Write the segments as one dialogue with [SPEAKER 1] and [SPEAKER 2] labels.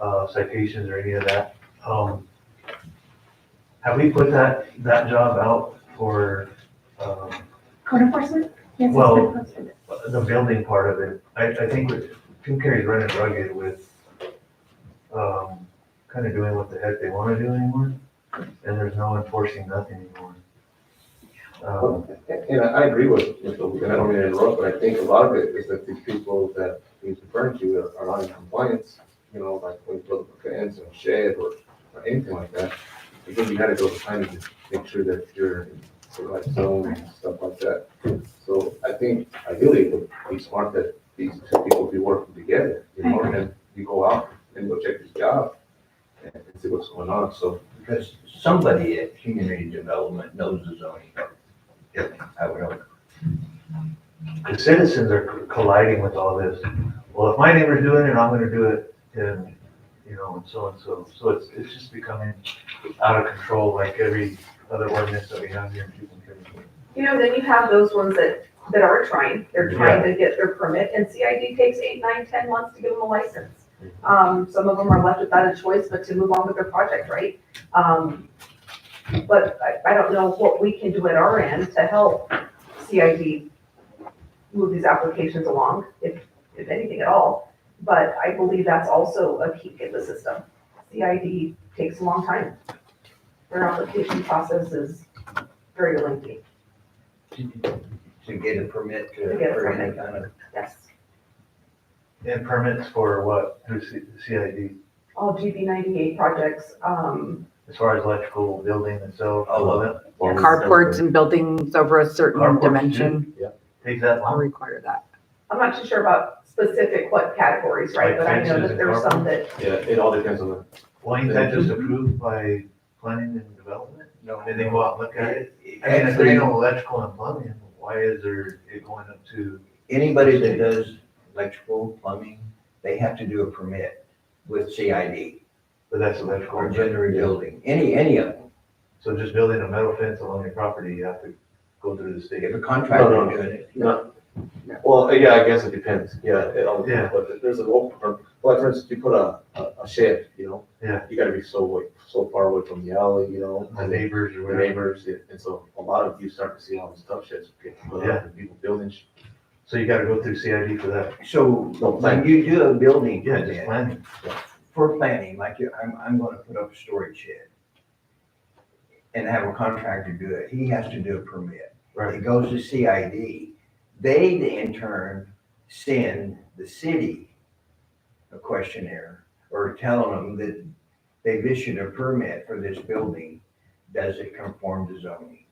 [SPEAKER 1] uh, citations or any of that. Um, have we put that, that job out for, um,
[SPEAKER 2] Code enforcement? Yes, it's
[SPEAKER 1] Well-
[SPEAKER 2] been posted.
[SPEAKER 1] the building part of it? I, I think with- Jim Carrey's running rugged with, um, kind of doing what the heck they want to do anymore. And there's no enforcing nothing anymore. Um,
[SPEAKER 3] And I I agree with, with the- and I don't mean to interrupt, but I think a lot of it is that these people that he's referring to are- are not in compliance, you know, like when you build a fence and shed or or anything like that. I think you gotta go behind and make sure that you're in the right zone and stuff like that. So I think ideally it would be smart that these two people be working together, you know, and then you go out and go check his job and see what's going on, so.
[SPEAKER 4] Because somebody at community development knows the zoning. Yeah, I would hope.
[SPEAKER 1] the citizens are colliding with all this. Well, if my neighbor's doing it, I'm gonna do it, and, you know, and so and so. So it's, it's just becoming out of control, like every other ordinance that we have here in Cuban County.
[SPEAKER 5] You know, then you have those ones that, that are trying, they're trying to get their permit, and CID takes eight, nine, ten months to give them a license. Um, some of them are left without a choice but to move on with their project, right? Um, but I, I don't know what we can do at our end to help CID move these applications along, if, if anything at all. But I believe that's also a key in the system. CID takes a long time. Their application process is very lengthy.
[SPEAKER 4] To get a permit to,
[SPEAKER 5] To get a
[SPEAKER 4] for any kind of,
[SPEAKER 5] Yes,
[SPEAKER 1] And permits for what, through C- CID,
[SPEAKER 5] all GB ninety-eight projects, um,
[SPEAKER 1] as far as electrical building itself, all of it,
[SPEAKER 6] Carports and buildings over a certain
[SPEAKER 1] Carports, yeah.
[SPEAKER 6] dimension
[SPEAKER 1] take that
[SPEAKER 6] will
[SPEAKER 1] long.
[SPEAKER 6] require that.
[SPEAKER 5] I'm not too sure about specific what categories, right?
[SPEAKER 1] Like
[SPEAKER 5] But I know
[SPEAKER 1] fences
[SPEAKER 5] that
[SPEAKER 1] and
[SPEAKER 5] there's some that,
[SPEAKER 3] Yeah, it all depends on the
[SPEAKER 1] Well, ain't that just approved by planning and development?
[SPEAKER 4] no.
[SPEAKER 1] And they go out and look at it? I mean, if there's
[SPEAKER 4] Actually,
[SPEAKER 1] no electrical and plumbing, why is there it going up to,
[SPEAKER 4] anybody that does electrical, plumbing, they have to do a permit with CID
[SPEAKER 1] but that's electrical.
[SPEAKER 4] or general building, any, any of them.
[SPEAKER 1] So just building a metal fence along your property, you have to go through the state.
[SPEAKER 4] If a contractor
[SPEAKER 3] No, no.
[SPEAKER 4] doing it,
[SPEAKER 3] No. Well, uh, yeah, I guess it depends. Yeah, it all
[SPEAKER 1] Yeah.
[SPEAKER 3] depends, but there's a role, for- like for instance, you put a, a a shed, you know?
[SPEAKER 1] Yeah.
[SPEAKER 3] You gotta be so away, so far away from the alley, you know,
[SPEAKER 1] The
[SPEAKER 3] and the
[SPEAKER 1] neighbors or whatever.
[SPEAKER 3] neighbors, and and so a lot of you start to see all this stuff sheds getting put
[SPEAKER 1] Yeah.
[SPEAKER 3] up and people building. sh-
[SPEAKER 1] So you gotta go through CID for that.
[SPEAKER 4] so
[SPEAKER 3] No,
[SPEAKER 4] when
[SPEAKER 3] plan.
[SPEAKER 4] you do a building
[SPEAKER 1] Yeah, just
[SPEAKER 4] permit
[SPEAKER 1] planning.
[SPEAKER 4] for planning, like you- I'm, I'm gonna put up a storage shed and have a contractor do it, he has to do a permit.
[SPEAKER 1] Right.
[SPEAKER 4] It goes to CID. They then in turn send the city a questionnaire or telling them that they've issued a permit for this building. Does it conform to zoning?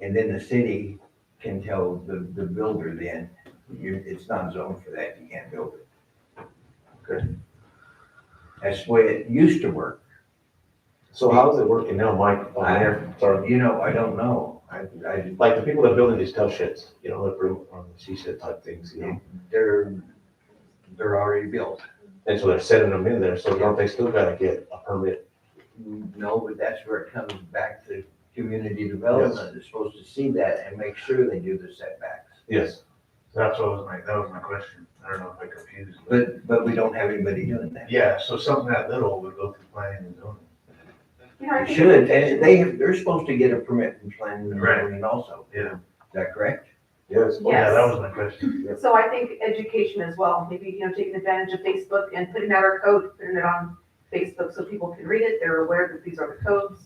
[SPEAKER 4] And then the city can tell the, the builder then, you, it's not zoned for that, you can't build it.
[SPEAKER 3] Okay.
[SPEAKER 4] That's the way it used to work.
[SPEAKER 3] So how is it working now, Mike? on
[SPEAKER 4] I-
[SPEAKER 3] there? Sorry.
[SPEAKER 4] You know, I don't know. I, I
[SPEAKER 3] Like the people that build in these tough sheds, you know, that room on the she shed type things, you know?
[SPEAKER 4] they're, they're already built.
[SPEAKER 3] And so they're setting them in there, so don't they still gotta get a permit?
[SPEAKER 4] No, but that's where it comes back to community development, they're supposed to see that and make sure they do the setbacks.
[SPEAKER 3] Yes.
[SPEAKER 1] That's what was my, that was my question. I don't know if I confused. but-
[SPEAKER 4] But, but we don't have anybody doing that.
[SPEAKER 1] Yeah, so something that little would go through planning and zoning.
[SPEAKER 5] you know, I
[SPEAKER 4] They
[SPEAKER 5] think.
[SPEAKER 4] should, and they have, they're supposed to get a permit from planning and
[SPEAKER 1] Right.
[SPEAKER 4] zoning also.
[SPEAKER 1] Yeah.
[SPEAKER 4] Is that correct?
[SPEAKER 3] Yes.
[SPEAKER 1] Oh, Yeah, that
[SPEAKER 5] Yes.
[SPEAKER 1] was my question.
[SPEAKER 5] So I think education as well, maybe, you know, taking advantage of Facebook and putting out our code, putting it on Facebook so people can read it, they're aware that these are the codes,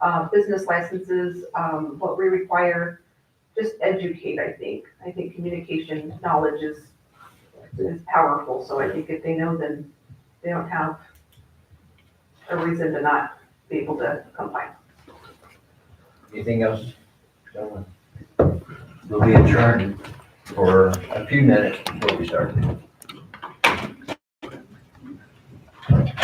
[SPEAKER 5] uh, business licenses, um, what we require, just educate, I think. I think communication knowledge is, is powerful, so I think if they know, then they don't have a reason to not be able to comply.
[SPEAKER 4] Anything else? Gentlemen? We'll be adjourned for a few minutes before we start.